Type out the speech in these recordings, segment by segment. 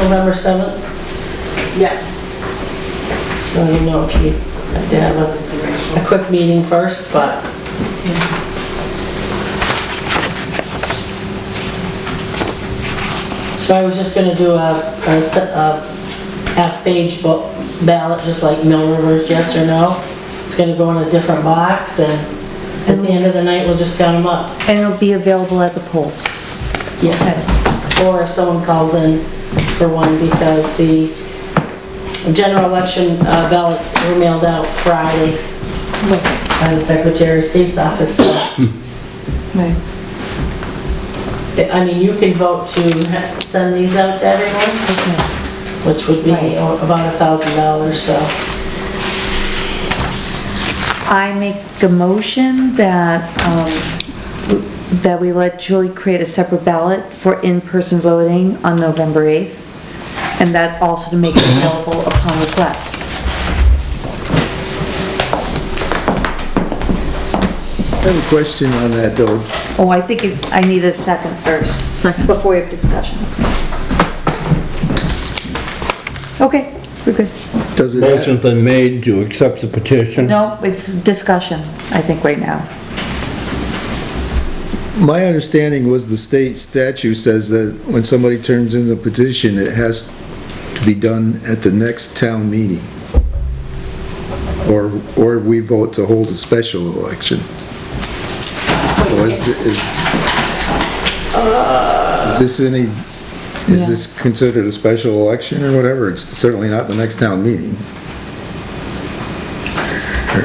November 7th, Yes. so you know if you have to have a, a quick meeting first, but So I was just gonna do a, a s- a half-page bo- ballot, just like Mill River's, yes or no. It's gonna go in a different box, and at the end of the night, we'll just count them up. And it'll be available at the polls. Yes. Or if someone calls in for one, because the general election uh, ballots were mailed out Friday by the Secretary of State's office. So, Right. I mean, you can vote to ha- send these out to everyone. Okay. which would be Right. o- about a thousand dollars, so. I make the motion that, um, that we let Julie create a separate ballot for in-person voting on November 8th, and that also to make it available upon request. I have a question on that, though. Oh, I think it- I need a second first. Second. Before we have discussion. Okay, we're good. Does it, Motion's have- been made to accept the petition. No, it's discussion, I think, right now. my understanding was the state statute says that when somebody turns in a petition, it has to be done at the next town meeting. Or, or we vote to hold a special election. So is, is, is this any, is this considered a special election or whatever? It's certainly not the next town meeting.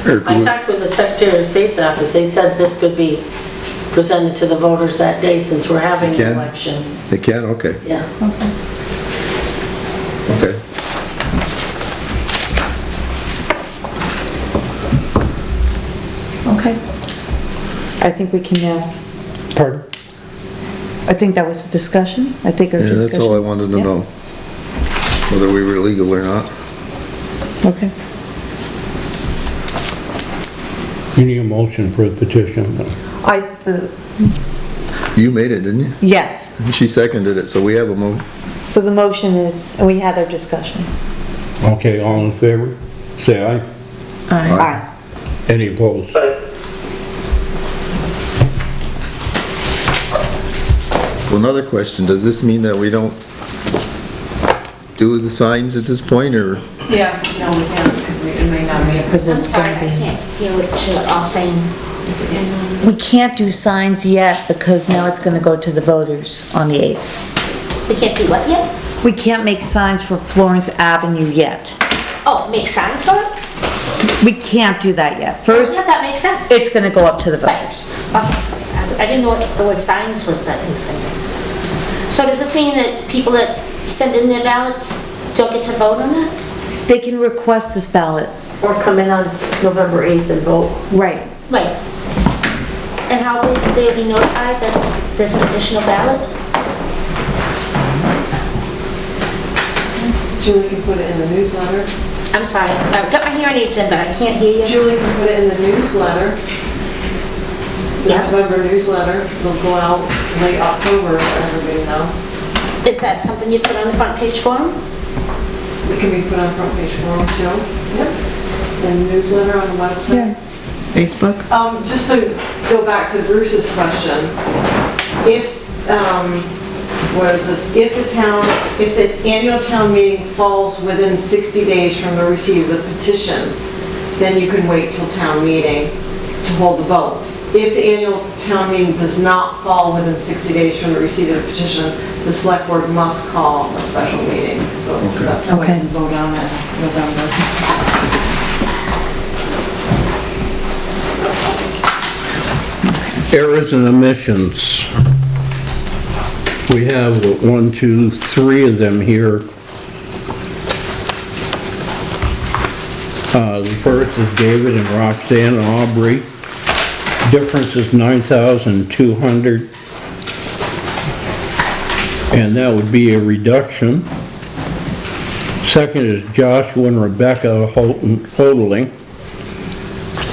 Or- or- I talked with the Secretary of State's office, they said this could be presented to the voters that day since we're having an Again? election. They can, okay, Yeah, okay. Okay. I think we can now, Pardon? I think that was a discussion. I think it was Yeah, discussion. that's all I wanted to Yeah, know, whether we were legal or not. Okay. You need a motion for the petition. I, uh, You made it, didn't you? yes, She seconded it, so we have a mo, so the motion is, and we had our discussion. Okay, all in favor? Say aye. Aye. Any opposed? well, another question, does this mean that we don't do the signs at this point, or? Yeah, no, we can't, because we- it may not be. Because I'm it's sorry, gonna I be, can't hear what you're all saying. we can't do signs yet because now it's gonna go to the voters on the 8th. We can't do what yet? We can't make signs for Florence Avenue yet. Oh, make signs for it? We can't do that yet. First, Yeah, that makes sense. it's gonna go up to the Right, voters. okay. I- I didn't know what the word signs was that he was saying. So does this mean that people that send in their ballots don't get to vote on it? They can request this ballot. or come in on November 8th and vote. Right. Wait. And how will they be notified that there's an additional ballot? Julie can put it in the newsletter. I'm sorry, I've got my hearing aids in, but I can't hear you. Julie can put it in the newsletter, the Yeah. November newsletter. It'll go out late October, so everybody know. Is that something you put on the front page for 'em? It can be put on front page forum too. Yep. And newsletter on the website. Facebook? Um, just to go back to Bruce's question, if, um, what is this, if the town, if the annual town meeting falls within 60 days from the receipt of the petition, then you can wait till town meeting to hold the vote. If the annual town meeting does not fall within 60 days from the receipt of the petition, the select board must call a special meeting, so that's why you Okay. can vote on it in November. Errors and omissions. We have one, two, three of them here. Uh, the first is David and Roxanne Aubrey. Difference is nine thousand two hundred. And that would be a reduction. Second is Joshua and Rebecca Holton, Holding.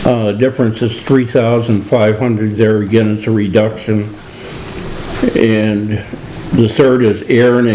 Uh, the difference is three thousand five hundred, there again, it's a reduction. And the third is Aaron